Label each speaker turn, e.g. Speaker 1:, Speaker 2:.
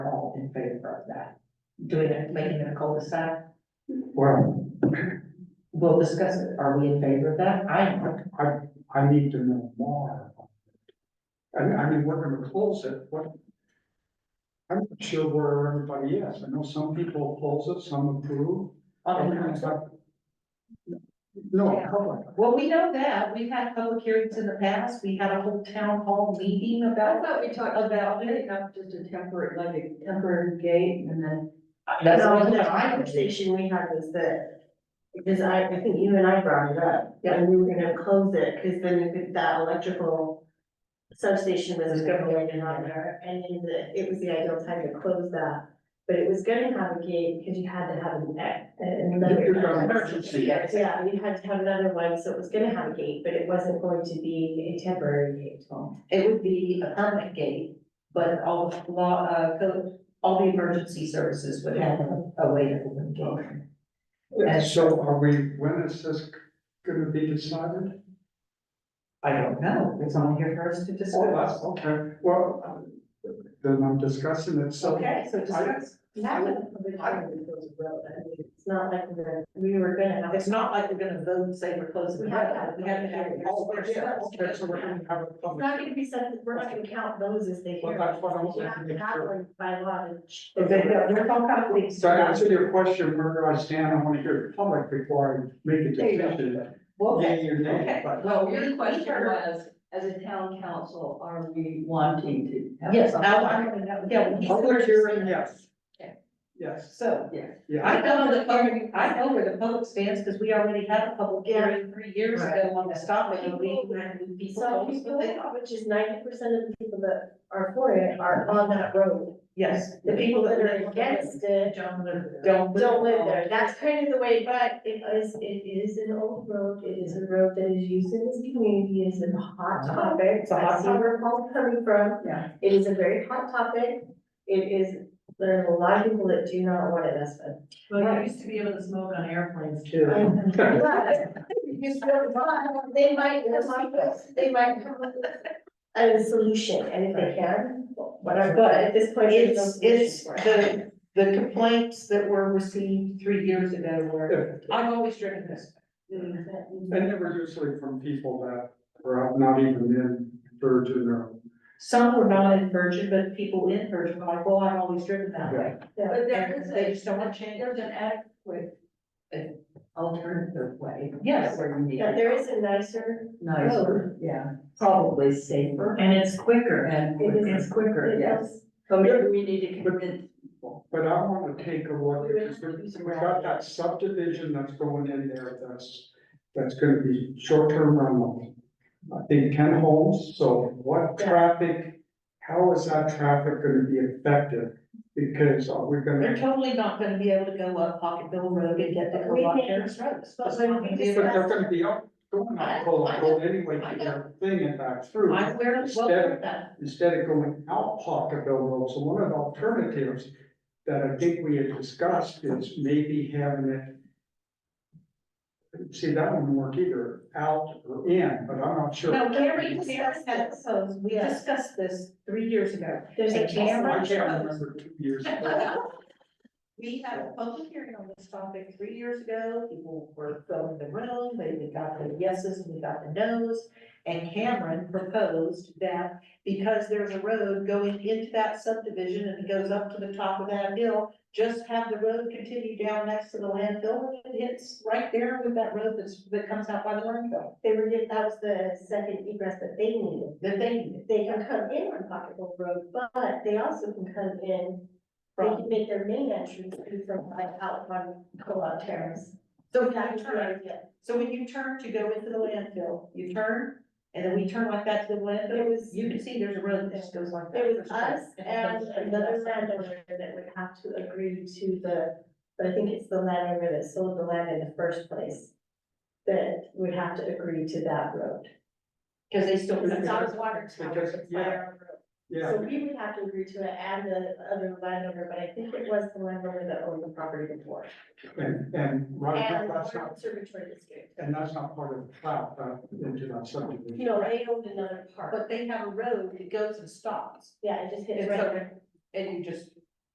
Speaker 1: in favor of that. Doing it, making it a cul-de-sac,
Speaker 2: Well,
Speaker 1: we'll discuss it. Are we in favor of that? I am. not.
Speaker 2: I, I need to know more. I, I mean, we're gonna close it, what? I'm not sure where everybody is, I know some people close it, some approve.
Speaker 1: On the
Speaker 2: everyone's
Speaker 1: council.
Speaker 2: got- No, public,
Speaker 1: Well, we know that. We've had public hearings in the past. We had a whole town hall meeting
Speaker 3: I
Speaker 1: about.
Speaker 3: thought we talked about it, not just a temporary, like a temporary gate and then.
Speaker 1: That's
Speaker 4: No,
Speaker 1: what
Speaker 4: the
Speaker 1: I'm saying.
Speaker 4: conversation we had was that, because I, I think you and I brought it up, and we were gonna close it, because then if it- that electrical substation was gonna go in and out there, and then the, it was the ideal time to close that. But it was gonna have a gate, because you had to have an, e-
Speaker 2: You're gonna-
Speaker 4: another.
Speaker 2: Emergency.
Speaker 4: Yeah, you had to have another one, so it was gonna have a gate, but it wasn't going to be a temporary gate.
Speaker 1: It would be a permanent gate, but all the law, uh, code, all the emergency services would have a way to open the gate.
Speaker 2: And so are we, when is this gonna be decided?
Speaker 1: I don't know. It's on here for us to discuss.
Speaker 2: Okay, well, um, then I'm discussing it, so.
Speaker 1: Okay, so discuss.
Speaker 4: That was probably part of the proposal, though, I mean, it's not like we're, we were gonna have.
Speaker 1: It's not like we're gonna vote and say we're closing. the
Speaker 4: We have to
Speaker 1: road.
Speaker 4: have a
Speaker 1: We have to have. it.
Speaker 2: Oh, we're- yeah, okay, so we're gonna have a
Speaker 4: It's
Speaker 2: public.
Speaker 4: not gonna be something, we're not gonna count those as they
Speaker 2: Well,
Speaker 4: hear.
Speaker 2: that's what I was
Speaker 4: You have to have
Speaker 2: thinking.
Speaker 4: one by law to.
Speaker 1: If they, they're all kind of leaks.
Speaker 2: So to answer your question, where do I stand, I wanna hear the public before I make a
Speaker 1: There you go.
Speaker 2: decision.
Speaker 1: Okay.
Speaker 2: Yay or nay,
Speaker 1: Okay,
Speaker 2: but
Speaker 1: well,
Speaker 3: Your
Speaker 1: we-
Speaker 3: question was, as a town council, are we wanting to have?
Speaker 1: Yes, I,
Speaker 3: something?
Speaker 1: I, yeah, he's.
Speaker 2: public hearing, yes.
Speaker 3: Okay.
Speaker 2: Yes,
Speaker 1: So,
Speaker 3: Yes.
Speaker 2: yeah,
Speaker 1: I know the public, I know where the public stands, because we already had a public hearing three years
Speaker 4: Right.
Speaker 1: ago on the stop, and we, people
Speaker 4: Some
Speaker 1: told us what they
Speaker 4: people,
Speaker 1: thought.
Speaker 4: which is ninety percent of the people that are for it are on that road.
Speaker 1: Yes,
Speaker 4: The people that are against it
Speaker 3: Don't live there.
Speaker 1: don't.
Speaker 4: don't live there. That's kind of the way, but it is, it is an old road. It is a road that is used in this community. It is a hot topic.
Speaker 1: It's a hot
Speaker 4: I see where Paul's coming from.
Speaker 3: Yeah.
Speaker 4: It is a very hot topic. It is, there are a lot of people that do not want it as a
Speaker 3: Well, you used to be able to smoke on airplanes too.
Speaker 4: They might come up with, they might come up with a solution, and if they can, whatever, but at this point, there's no
Speaker 1: It's, it's
Speaker 4: solution for it.
Speaker 1: the, the complaints that were received three years ago were, I've always driven this.
Speaker 4: Mm.
Speaker 2: and they were usually from people that were out, not even in Virgin or.
Speaker 1: Some were not in Virgin, but people in Virgin were like, well, I've always driven that way.
Speaker 3: But there
Speaker 1: And
Speaker 3: is
Speaker 1: they
Speaker 3: a,
Speaker 1: just don't want to change.
Speaker 3: there's an adequate an alternative way.
Speaker 1: Yes.
Speaker 3: Where you need
Speaker 4: But there is a nicer, Oh.
Speaker 3: nicer, yeah.
Speaker 1: Probably safer.
Speaker 3: And it's quicker and
Speaker 4: It is.
Speaker 3: it's quicker, yes.
Speaker 4: yes,
Speaker 3: So maybe we need to convince people.
Speaker 2: But I wanna take a look, because we, we got that subdivision that's going in there, that's, that's gonna be short-term rental. I think ten homes, so what traffic, how is that traffic gonna be affected? Because are we gonna?
Speaker 1: They're totally not gonna be able to go up Pocketville Road and get to
Speaker 4: We
Speaker 1: Clark
Speaker 4: can-
Speaker 1: Terrace Road.
Speaker 4: but when we
Speaker 2: But they're gonna be up, going
Speaker 1: I-
Speaker 2: up Cola
Speaker 1: I know,
Speaker 2: Road anyway,
Speaker 1: I
Speaker 2: to
Speaker 1: know.
Speaker 2: their thing and back through,
Speaker 1: I'm aware of well, aware of that.
Speaker 2: instead of going out Pocketville Road, so one of the alternatives that I think we had discussed is maybe having it see, that wouldn't work either, out or in, but I'm not sure.
Speaker 1: No,
Speaker 4: Gary
Speaker 1: Gary,
Speaker 4: discussed that, so
Speaker 1: we discussed this three years ago.
Speaker 4: there's a
Speaker 1: And camera?
Speaker 4: camera.
Speaker 2: I can't remember two years ago,
Speaker 1: We had a public hearing on this topic three years ago, people were filling the room, they, we got the yeses and we got the nos. And Cameron proposed that because there's a road going into that subdivision and it goes up to the top of that hill, just have the road continue down next to the landfill and it hits right there with that road that's, that comes out by the landfill,
Speaker 4: They were, that was the second egress that they needed.
Speaker 1: that they needed.
Speaker 4: They can come in on Pocketville Road, but they also can come in, they
Speaker 1: from.
Speaker 4: can make their main entrance be from like out on Co-op Terrace.
Speaker 1: So when
Speaker 4: That
Speaker 1: you
Speaker 4: was the
Speaker 1: turn,
Speaker 4: idea.
Speaker 1: so when you turn to go into the landfill, you turn, and then we turn like that to the landfill,
Speaker 4: It was,
Speaker 1: you can see there's a road that just goes like that.
Speaker 4: it was us
Speaker 1: it
Speaker 4: and
Speaker 1: goes straight to
Speaker 4: another
Speaker 1: that side.
Speaker 4: landowner that would have to agree to the, but I think it's the landowner that sold the land in the first place that would have to agree to that road.
Speaker 1: Cause they still.
Speaker 4: Because it's not a water tower,
Speaker 2: Because-
Speaker 4: it's a
Speaker 2: yeah.
Speaker 4: fire road.
Speaker 2: yeah.
Speaker 4: So we would have to agree to it and the other landowner, but I think it was the landowner that owned the property before.
Speaker 2: And, and right now,
Speaker 4: And the
Speaker 2: that's
Speaker 4: Water
Speaker 2: not,
Speaker 4: Conservatory District.
Speaker 2: and that's not part of the cloud, that, into that subdivision.
Speaker 4: You know, they owned another part.
Speaker 1: But they have a road that goes and stops,
Speaker 4: Yeah, it just hits
Speaker 1: It's
Speaker 4: right
Speaker 1: okay.
Speaker 4: there.
Speaker 1: and you just